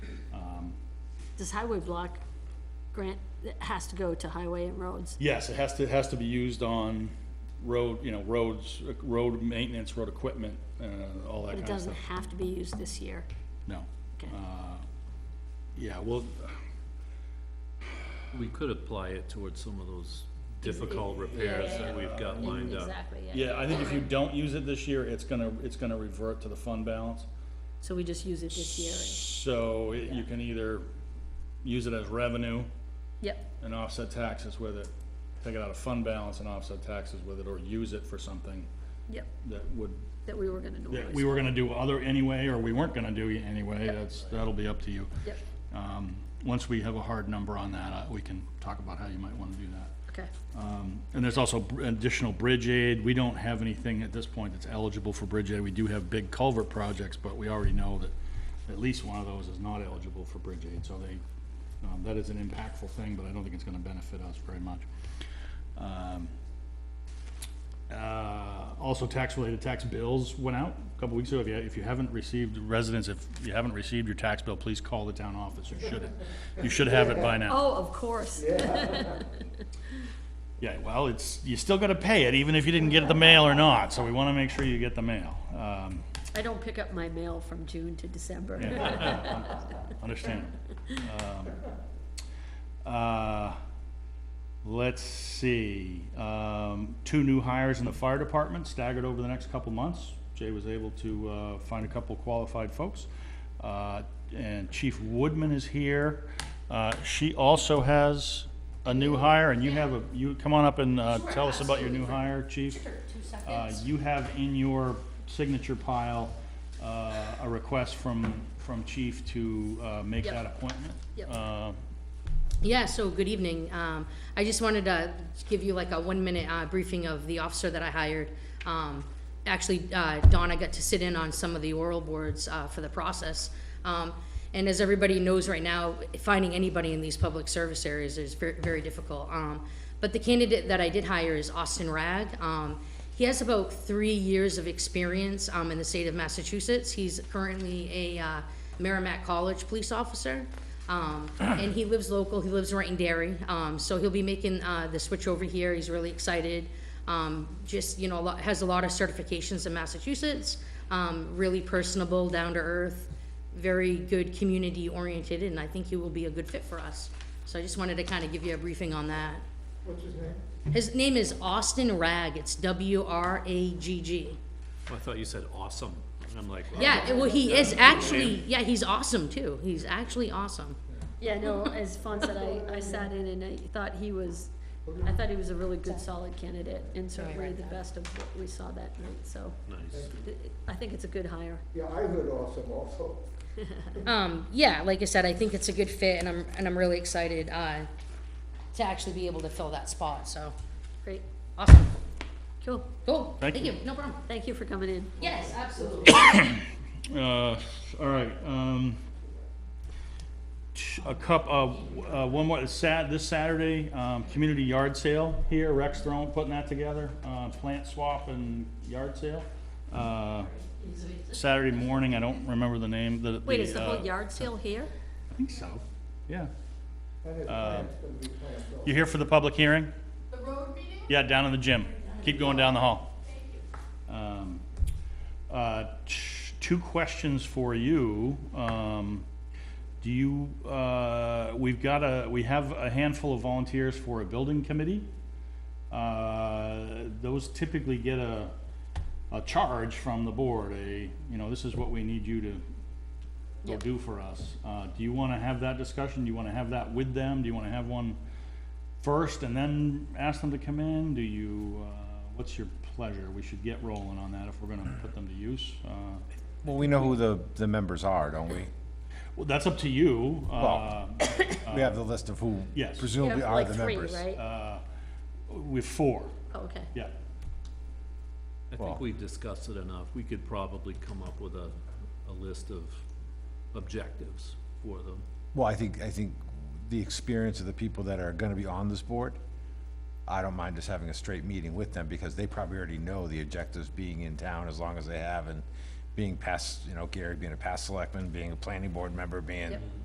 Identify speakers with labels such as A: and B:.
A: this highway block grant, it has to go to highway and roads.
B: Yes, it has to, it has to be used on road, you know, roads, road maintenance, road equipment, uh, all that
A: It
B: kind of
A: doesn't
B: stuff.
A: have to be used this year.
B: No.
A: Okay.
B: Yeah, well,
C: We could apply it towards some of those difficult repairs that we've got lined up.
A: Exactly, yeah.
B: yeah, I think if you don't use it this year, it's gonna, it's gonna revert to the fund balance.
A: So we just use it this year. and-
B: So it- you can either use it as revenue
A: Yep,
B: and offset taxes with it, take it out of fund balance and offset taxes with it, or use it for something
A: yep,
B: that would,
A: that we were gonna
B: that
A: normally.
B: we were gonna do other anyway, or we weren't gonna do anyway, that's, that'll be up to you.
A: Yep,
B: Um, Once we have a hard number on that, uh, we can talk about how you might want to do that.
A: okay,
B: Um, And there's also br- additional bridge aid. We don't have anything at this point that's eligible for bridge aid. We do have big culvert projects, but we already know that at least one of those is not eligible for bridge aid, so they, um, that is an impactful thing, but I don't think it's going to benefit us very much. Um, uh, Also, tax-related tax bills went out a couple weeks ago. If you, if you haven't received, residents, if you haven't received your tax bill, please call the town office. You should, you should have it by now.
A: oh, of course,
B: Yeah, well, it's, you still gotta pay it, even if you didn't get the mail or not, so we wanna make sure you get the mail. Um,
A: I don't pick up my mail from June to December.
B: Understandable. Um, uh, Let's see, um, two new hires in the fire department staggered over the next couple months. Jay was able to uh, find a couple qualified folks. Uh, And Chief Woodman is here. Uh, She also has a new hire, and you have a, you, come on up and uh, tell us about your new hire, Chief. Uh, You have in your signature pile uh, a request from, from Chief to uh, make
A: Yep.
B: that appointment.
A: Yep.
B: Uh,
D: Yeah, so good evening. Um, I just wanted to give you like a one-minute uh, briefing of the officer that I hired. Um, Actually, uh, Dawn, I got to sit in on some of the oral boards uh, for the process. Um, And as everybody knows right now, finding anybody in these public service areas is ver- very difficult. Um, But the candidate that I did hire is Austin Rag. Um, He has about three years of experience um, in the state of Massachusetts. He's currently a uh, Merrimack College police officer. Um, and he lives local, he lives right in Derry, um, so he'll be making, uh, the switch over here, he's really excited. Um, just, you know, a lot, has a lot of certifications in Massachusetts, um, really personable, down to earth, very good community oriented, and I think he will be a good fit for us. So I just wanted to kind of give you a briefing on that. What's his name? His name is Austin Rag, it's W R A G G.
C: I thought you said awesome, and I'm like, wow.
D: Yeah, well, he is actually, yeah, he's awesome too, he's actually awesome.
A: Yeah, no, as Fawn said, I, I sat in and I thought he was, I thought he was a really good, solid candidate, and certainly the best of what we saw that night, so.
C: Nice.
A: it- I think it's a good hire.
E: Yeah, I heard awesome also.
D: um, yeah, like I said, I think it's a good fit, and I'm and I'm really excited uh, to actually be able to fill that spot. So
A: Great,
D: awesome,
A: cool.
D: cool,
B: Thank you.
D: no problem.
A: Thank you for coming in.
D: Yes, absolutely.
B: Uh, all right, um, a cup, uh, uh, one more, Sat, this Saturday, um, community yard sale here, Rex Throne putting that together, uh, plant swap and yard sale. Uh, Saturday morning, I don't remember the name, the.
A: Wait, is the
B: uh,
A: whole yard sale here?
B: I think so, yeah. Uh,
E: And his plant's gonna be planned, so.
B: You here for the public hearing? The road meeting? Yeah, down in the gym. Keep going down the hall. Um, uh, t- Two questions for you. Um, Do you, uh, we've got a, we have a handful of volunteers for a building committee. Uh, Those typically get a, a charge from the board, a, you know, this is what we need you to will
A: Yep.
B: do for us. Uh, do you wanna have that discussion? Do you wanna have that with them? Do you wanna have one first and then ask them to come in? Do you, uh, what's your pleasure? We should get rolling on that if we're gonna put them to use. Uh,
F: Well, we know who the, the members are, don't we?
B: well, that's up to you. Uh,
F: We have the list of who
B: Yes.
F: presumably
A: Yeah,
F: are
A: like
F: the
A: three,
F: members.
A: right?
B: with four,
A: Oh, Okay,
B: yeah.
C: I think we discussed it enough. We could probably come up with a, a list of objectives for them.
F: Well, I think, I think the experience of the people that are gonna be on this board, I don't mind just having a straight meeting with them, because they probably already know the objectives being in town as long as they have, and being past, you know, Gary being a past selectman, being a planning board member, being